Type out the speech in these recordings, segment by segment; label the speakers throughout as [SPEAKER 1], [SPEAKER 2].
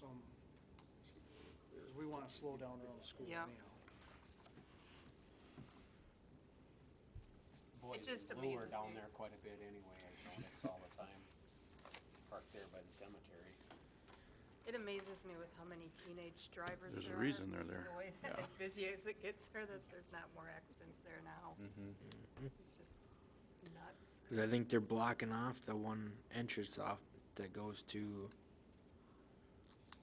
[SPEAKER 1] some, we want to slow down around the school
[SPEAKER 2] Yeah.
[SPEAKER 1] anyhow.
[SPEAKER 3] Boys
[SPEAKER 2] just
[SPEAKER 3] in blue are
[SPEAKER 2] amazes
[SPEAKER 3] down
[SPEAKER 2] me.
[SPEAKER 3] there quite a bit anyway, I notice all the time, parked there by the cemetery.
[SPEAKER 2] It amazes me with how many teenage drivers
[SPEAKER 4] There's a
[SPEAKER 2] there are.
[SPEAKER 4] reason they're there.
[SPEAKER 2] The way that
[SPEAKER 4] Yeah.
[SPEAKER 2] as busy as it gets there, that there's not more accidents there now.
[SPEAKER 4] Mm-hmm.
[SPEAKER 2] It's just nuts.
[SPEAKER 5] Because I think they're blocking off the one entrance off that goes to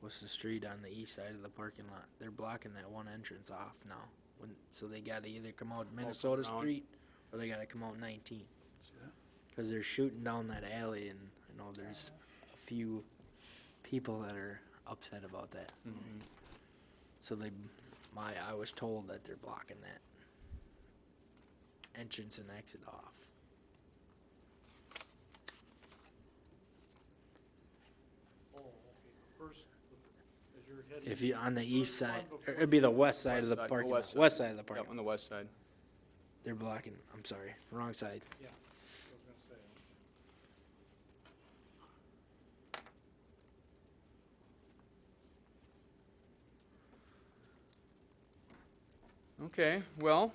[SPEAKER 5] what's the street on the east side of the parking lot. They're blocking that one entrance off now. When, so they got to either come out Minnesota
[SPEAKER 4] down.
[SPEAKER 5] Street or they got to come out 19.
[SPEAKER 4] See that?
[SPEAKER 5] Because they're shooting down that alley, and I know there's a few people that are upset about that. So they, my, I was told that they're blocking that entrance and exit off.
[SPEAKER 1] Oh, okay, the first, the- as you're heading.
[SPEAKER 5] If you, on the east
[SPEAKER 1] First one
[SPEAKER 5] side,
[SPEAKER 1] before-
[SPEAKER 5] it'd be the west side of the
[SPEAKER 6] West side,
[SPEAKER 5] parking,
[SPEAKER 6] west
[SPEAKER 5] lot.
[SPEAKER 6] side.
[SPEAKER 5] west side of the
[SPEAKER 6] Yep,
[SPEAKER 5] parking.
[SPEAKER 6] on
[SPEAKER 5] lot.
[SPEAKER 6] the west side.
[SPEAKER 5] They're blocking, I'm sorry, wrong side.
[SPEAKER 1] Yeah, I was gonna say.
[SPEAKER 6] Okay, well,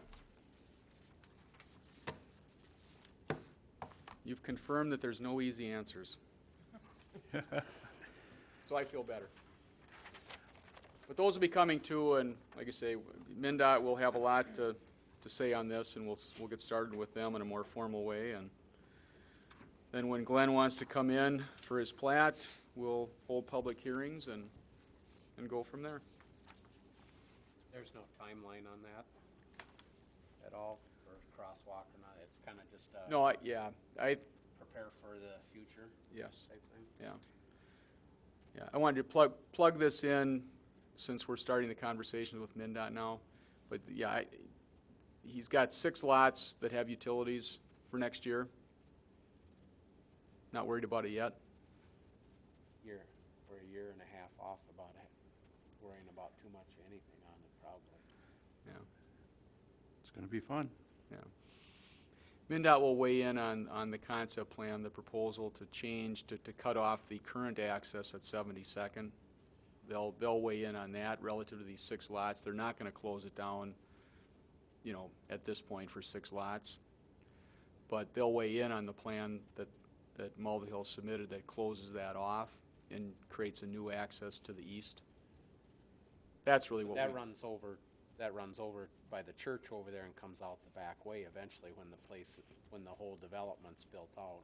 [SPEAKER 6] you've confirmed that there's no easy answers. So I feel better. But those will be coming too, and like I say, MinDOT will have a lot to, to say on this, and we'll, s- we'll get started with them in a more formal way, and then when Glenn wants to come in for his plat, we'll hold public hearings and, and go from there.
[SPEAKER 3] There's no timeline on that at all, or crosswalk or not, it's kind of just a
[SPEAKER 6] No, I, yeah, I,
[SPEAKER 3] prepare for the future
[SPEAKER 6] yes.
[SPEAKER 3] type thing.
[SPEAKER 6] Yeah. Yeah, I wanted to plug, plug this in since we're starting the conversations with MinDOT now. But yeah, I, he's got six lots that have utilities for next year. Not worried about it yet.
[SPEAKER 3] Year, we're a year and a half off about it, worrying about too much of anything on it probably.
[SPEAKER 6] Yeah,
[SPEAKER 4] It's gonna be fun.
[SPEAKER 6] yeah. MinDOT will weigh in on, on the concept plan, the proposal to change, to, to cut off the current access at Seventy-second. They'll, they'll weigh in on that relative to these six lots. They're not gonna close it down, you know, at this point for six lots. But they'll weigh in on the plan that, that Mulvihill submitted that closes that off and creates a new access to the east. That's really what we.
[SPEAKER 3] That runs over, that runs over by the church over there and comes out the back way eventually when the place, when the whole development's built out.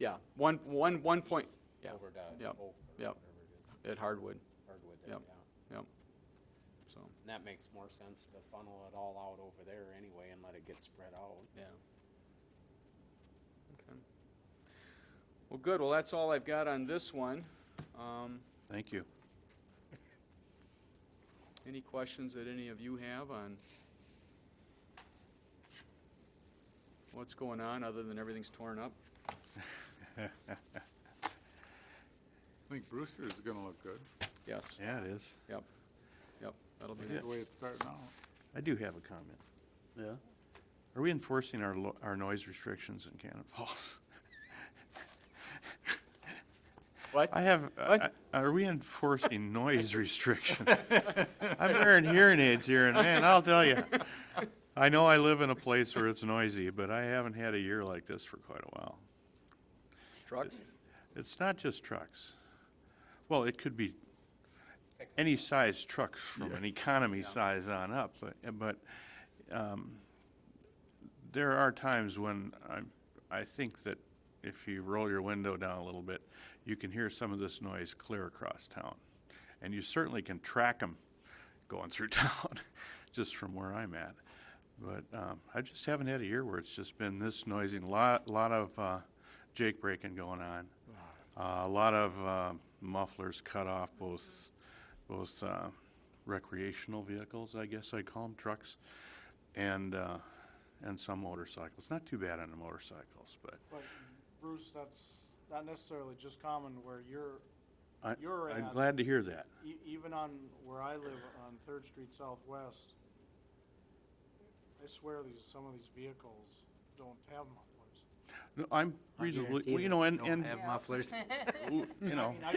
[SPEAKER 6] Yeah, one, one, one point, yeah,
[SPEAKER 3] Over to Oak
[SPEAKER 6] yep,
[SPEAKER 3] or
[SPEAKER 6] yep.
[SPEAKER 3] whatever it is,
[SPEAKER 6] at Hardwood,
[SPEAKER 3] Hardwood there,
[SPEAKER 6] Yep.
[SPEAKER 3] yeah.
[SPEAKER 6] yep. So,
[SPEAKER 3] And that makes more sense to funnel it all out over there anyway and let it get spread out.
[SPEAKER 6] yeah. Okay. Well, good, well, that's all I've got on this one. Um,
[SPEAKER 4] Thank you.
[SPEAKER 6] Any questions that any of you have on what's going on, other than everything's torn up?
[SPEAKER 7] I think Brewster's gonna look good,
[SPEAKER 6] Yes,
[SPEAKER 4] Yeah, it is.
[SPEAKER 6] yep, yep, that'll be
[SPEAKER 4] It
[SPEAKER 6] it.
[SPEAKER 7] the way it's starting out.
[SPEAKER 4] I do have a comment.
[SPEAKER 7] Yeah?
[SPEAKER 4] Are we enforcing our, lo- our noise restrictions in Cannon Falls? I
[SPEAKER 6] What?
[SPEAKER 4] have, I-
[SPEAKER 6] What?
[SPEAKER 4] I- are we enforcing noise restrictions? I'm wearing hearing aids here and man, I'll tell you. I know I live in a place where it's noisy, but I haven't had a year like this for quite a while.
[SPEAKER 6] Trucks?
[SPEAKER 4] It's not just trucks. Well, it could be any size trucks from an economy size on up, but, but, um, there are times when I, I think that if you roll your window down a little bit, you can hear some of this noise clear across town. And you certainly can track them going through town, just from where I'm at. But, um, I just haven't had a year where it's just been this noisy, lot, lot of, uh, jake breaking going on. Uh, a lot of, uh, mufflers cut off both, both, uh, recreational vehicles, I guess I call them, trucks, and, uh, and some motorcycles. Not too bad on the motorcycles, but
[SPEAKER 1] But Bruce, that's not necessarily just common where you're,
[SPEAKER 4] I,
[SPEAKER 1] You're
[SPEAKER 4] I'm
[SPEAKER 1] at-
[SPEAKER 4] glad to hear that.
[SPEAKER 1] e- even on where I live on Third Street Southwest, I swear these, some of these vehicles don't have mufflers.
[SPEAKER 4] No, I'm
[SPEAKER 5] I
[SPEAKER 4] reasonably,
[SPEAKER 5] guarantee
[SPEAKER 4] well, you
[SPEAKER 5] that
[SPEAKER 4] know,
[SPEAKER 5] they
[SPEAKER 4] and,
[SPEAKER 5] don't
[SPEAKER 4] and,
[SPEAKER 5] have mufflers.
[SPEAKER 4] you know.
[SPEAKER 1] I mean, I